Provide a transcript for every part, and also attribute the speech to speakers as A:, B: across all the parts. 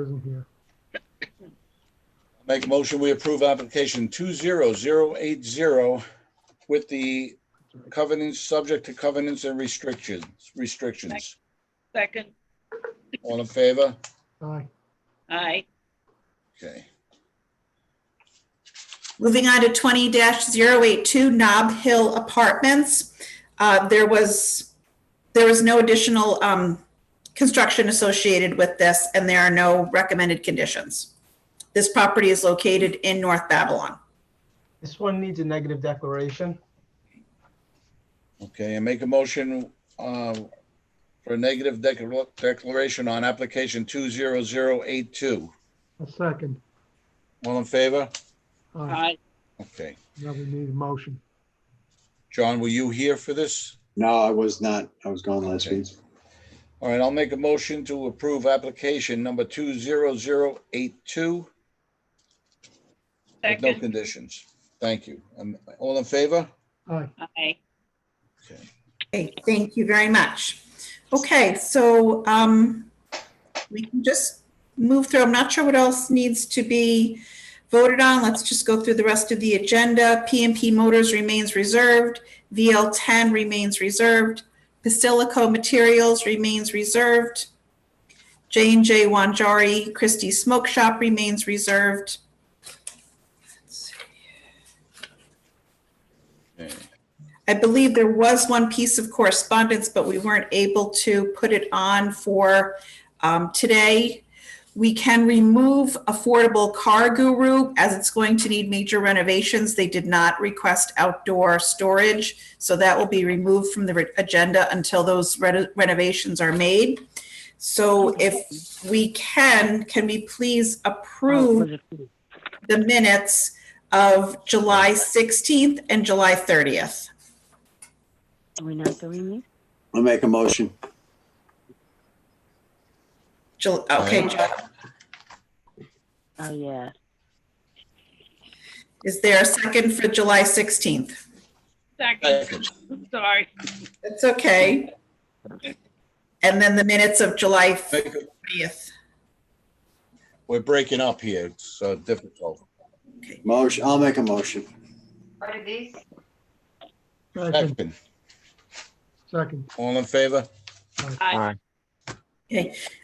A: isn't here.
B: Make a motion, we approve application two zero zero eight zero with the covenants, subject to covenants and restrictions, restrictions.
C: Second,
B: All in favor?
A: Aye.
C: aye,
B: Okay.
D: Moving on to twenty 82 Knob Hill Apartments. Uh, there was, there was no additional, um, construction associated with this and there are no recommended conditions. This property is located in North Babylon.
A: This one needs a negative declaration.
B: Okay, and make a motion uh, for a negative decla- declaration on application 20082.
E: A second.
B: All in favor?
E: Aye.
C: aye,
B: Okay.
E: Now we need a motion.
B: John, were you here for this?
F: No, I was not. I was gone last
B: Okay.
F: week.
B: All right, I'll make a motion to approve application number 20082 with no
C: second,
B: conditions. Thank you. Um, All in favor?
E: Aye.
C: aye,
B: Okay.
D: Okay, thank you very much. Okay, so, um, we can just move through. I'm not sure what else needs to be voted on. Let's just go through the rest of the agenda. PMP Motors remains reserved. VL ten remains reserved. Basilico Materials remains reserved. J and J Wanjari Christie's Smoke Shop remains reserved.
B: Okay.
D: I believe there was one piece of correspondence, but we weren't able to put it on for um, today. We can remove Affordable Car Guru as it's going to need major renovations. They did not request outdoor storage, so that will be removed from the re- agenda until those re- renovations are made. So if we can, can we please
G: Oh,
D: approve the minutes of July 16th and July 30th?
G: Are we not doing these?
F: I'll make a motion.
D: Jul- Okay,
B: Aye.
D: John,
G: Oh, yeah.
D: is there a second for July 16th?
C: second,
B: Second.
C: I'm sorry,
D: That's okay. And then the minutes of July
B: Make a-
D: 30th.
B: We're breaking up here. It's uh, difficult.
F: Motion, I'll make a motion.
E: Second,
B: Second.
E: second.
B: All in favor?
C: aye,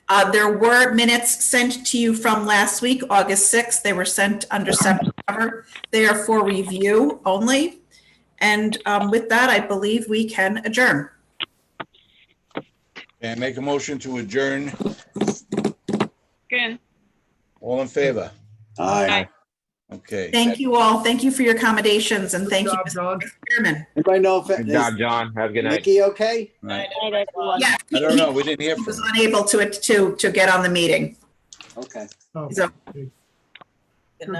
D: Uh, There were minutes sent to you from last week, August 6th. They were sent under separate cover. They are for review only. And um, with that, I believe we can adjourn.
B: And make a motion to adjourn.
C: second,
B: All in favor?
F: Aye.
C: aye,
B: Okay.
D: Thank you all. Thank you for your accommodations and thank you,
A: Good
D: Mr.
A: job, John.
D: Chairman.
F: Anybody know if,
H: Good
F: is
H: job, John. Have a good night.
F: Nikki okay?
B: Right.
G: Night, everyone.
D: Yeah,
B: I don't
D: he
B: know. We didn't hear from
D: was
B: him.
D: unable to, to, to get on the meeting.
F: Okay.
A: Oh,
D: So-
A: Good job.
F: Good
B: This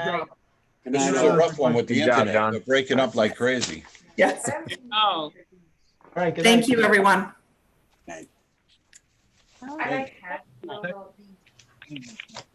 F: night.
B: is
F: all.
B: a rough one with the
H: Good job,
B: internet.
H: John.
B: They're breaking up like crazy.
D: Yes.
C: oh.
A: All right, good
D: Thank
A: night.
D: you, everyone.
G: Oh,
B: Thank-